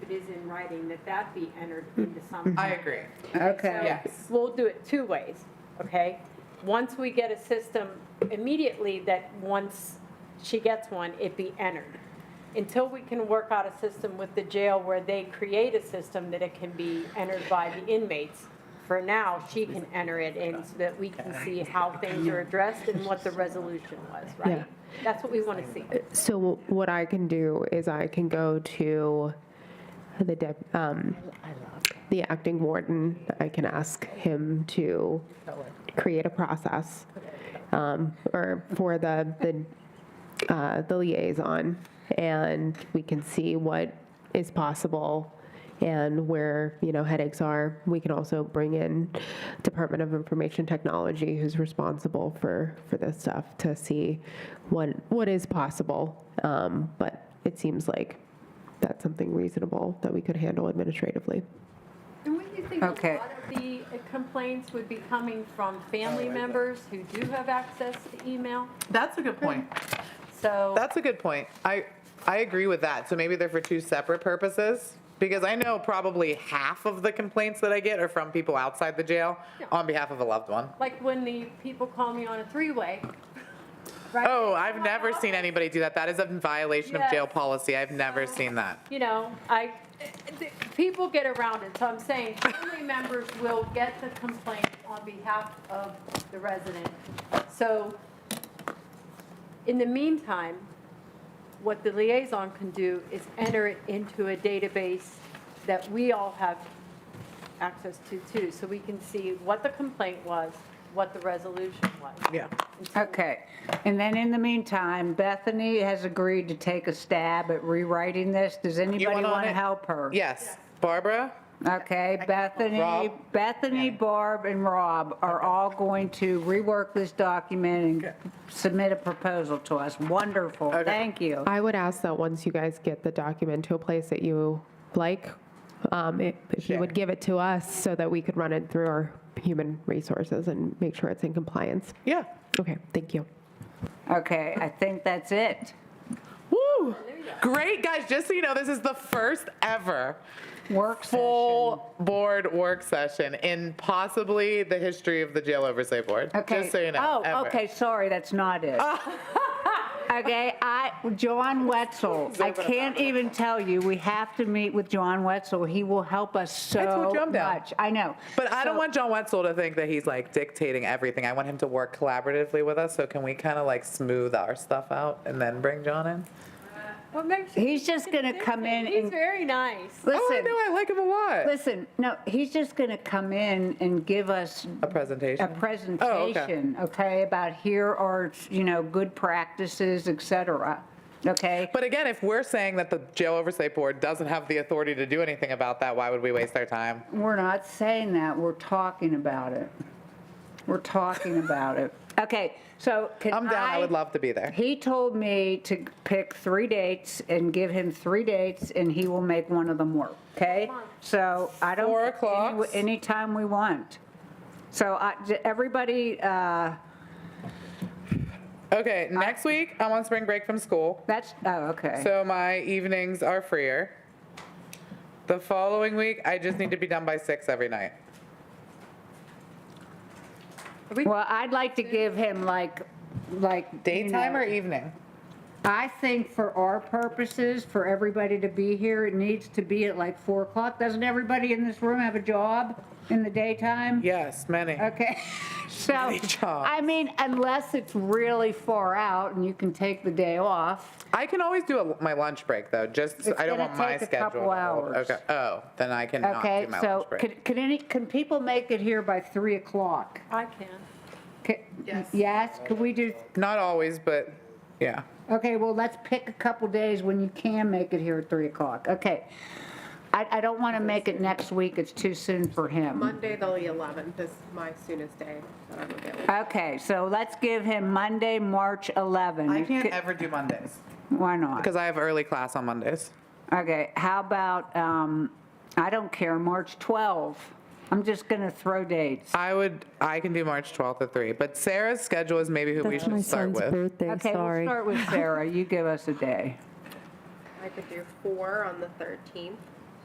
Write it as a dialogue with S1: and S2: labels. S1: in writing, that that be entered into something.
S2: I agree.
S1: So
S3: Okay.
S2: Yes.
S1: We'll do it two ways, okay? Once we get a system immediately that once she gets one, it be entered. Until we can work out a system with the jail where they create a system that it can be entered by the inmates, for now, she can enter it in so that we can see how things are addressed and what the resolution was,
S4: Yeah.
S1: right? That's what we want to see.
S4: So what I can do is I can go to the dep- um, the acting warden. I can ask him to create a process um, or for the the uh, the liaison, and we can see what is possible and where you know headaches are. We can also bring in Department of Information Technology, who's responsible for for this stuff, to see what what is possible. Um, but it seems like that's something reasonable that we could handle administratively.
S1: And what do you think a lot
S2: Okay.
S1: of the uh, complaints would be coming from family
S2: Oh
S1: members who do have access to email?
S2: That's a good point.
S1: So.
S2: That's a good point. I, I agree with that. So maybe they're for two separate purposes. Because I know probably half of the complaints that I get are from people outside the jail
S1: Yeah.
S2: on behalf of a loved one.
S1: Like when the people call me on a three-way. right?
S2: Oh, I've never seen anybody do that. That is a violation of jail
S1: Yes.
S2: policy. I've never seen that.
S1: You know, I, th- people get around it, so I'm saying family members will get the complaint on behalf of the resident. So in the meantime, what the liaison can do is enter it into a database that we all have access to too, so we can see what the complaint was, what the resolution was.
S2: Yeah.
S5: Okay, and then in the meantime, Bethany has agreed to take a stab at rewriting this. Does anybody
S2: want on
S5: want to
S2: it?
S5: help her?
S2: Yes. Barbara?
S5: Okay, Bethany,
S2: Rob?
S5: Bethany, Barb, and Rob are all going to rework this document and submit a proposal to us. Wonderful,
S2: Okay.
S5: thank you.
S4: I would ask that once you guys get the document to a place that you like, um, if if you would give it to us so that we could run it through our human resources and make sure it's in compliance.
S2: Yeah.
S4: Okay, thank you.
S5: Okay, I think that's it.
S2: Woo! Great, guys. Just so you know, this is the first ever
S5: Work session.
S2: full board work session in possibly the history of the jail oversight board.
S5: Okay.
S2: Just so you know.
S5: Oh,
S2: ever.
S5: okay, sorry, that's not it. Okay, I, John Wetzel, I can't even tell you, we have to meet with John Wetzel. He will help us
S2: I told
S5: so
S2: you I'm down.
S5: much. I know.
S2: But I don't
S5: So-
S2: want John Wetzel to think that he's like dictating everything. I want him to work collaboratively with us. So can we kind of like smooth our stuff out and then bring John in?
S1: What makes you
S5: He's just gonna come in
S1: He's
S5: and,
S1: very nice.
S2: oh, I
S5: listen,
S2: know. I like him a lot.
S5: listen, no, he's just gonna come in and give us
S2: a Oh, presentation.
S5: a presentation, okay, about here are, you know, good practices, et cetera, okay?
S2: But again, if we're saying that the jail oversight board doesn't have the authority to do anything about that, why would we waste our time?
S5: We're not saying that, we're talking about it. We're talking about it. Okay, so can I?
S2: I'm down. I, would love to be there.
S5: He told me to pick three dates and give him three dates, and he will make one of them work, okay? So I don't.
S2: Four o'clocks?
S5: Any- Anytime we want. So I, j- everybody, uh,
S2: Okay, next week I'm on spring break from school,
S5: that's, oh, okay.
S2: so my evenings are freer. The following week, I just need to be done by six every night.
S5: Well, I'd like to give him like, like. you
S2: Daytime
S5: know,
S2: or evening?
S5: I think for our purposes, for everybody to be here, it needs to be at like 4 o'clock. Doesn't everybody in this room have a job in the daytime?
S2: Yes, many.
S5: Okay, so,
S2: Many jobs.
S5: I mean, unless it's really far out and you can take the day off.
S2: I can always do a, my lunch break though. Just
S5: It's
S2: I don't
S5: gonna
S2: want my
S5: take a
S2: schedule.
S5: couple
S2: to hold-
S5: hours.
S2: Okay. Oh, then I cannot
S5: Okay,
S2: do my
S5: so
S2: lunch break.
S5: could, could any, can people make it here by 3 o'clock?
S1: I can.
S5: Yes. Yes, could we do,
S2: Not always, but yeah.
S5: okay, well, let's pick a couple days when you can make it here at 3 o'clock. Okay. I, I don't want to make it next week, it's too soon for him.
S6: Monday, the 11th is my soonest day that I'm available.
S5: Okay, so let's give him Monday, March 11.
S2: I can't ever do Mondays
S5: Why not?
S2: because I have early class on Mondays.
S5: Okay, how about, um, I don't care, March 12. I'm just going to throw dates.
S2: I would. I can do March 12th at three, but Sarah's schedule is maybe who we
S7: That's my
S2: should start
S7: son's
S2: with.
S7: birthday,
S5: Okay, we'll
S7: sorry.
S5: start with Sarah. You give us a day.
S6: I could do four on the 13th.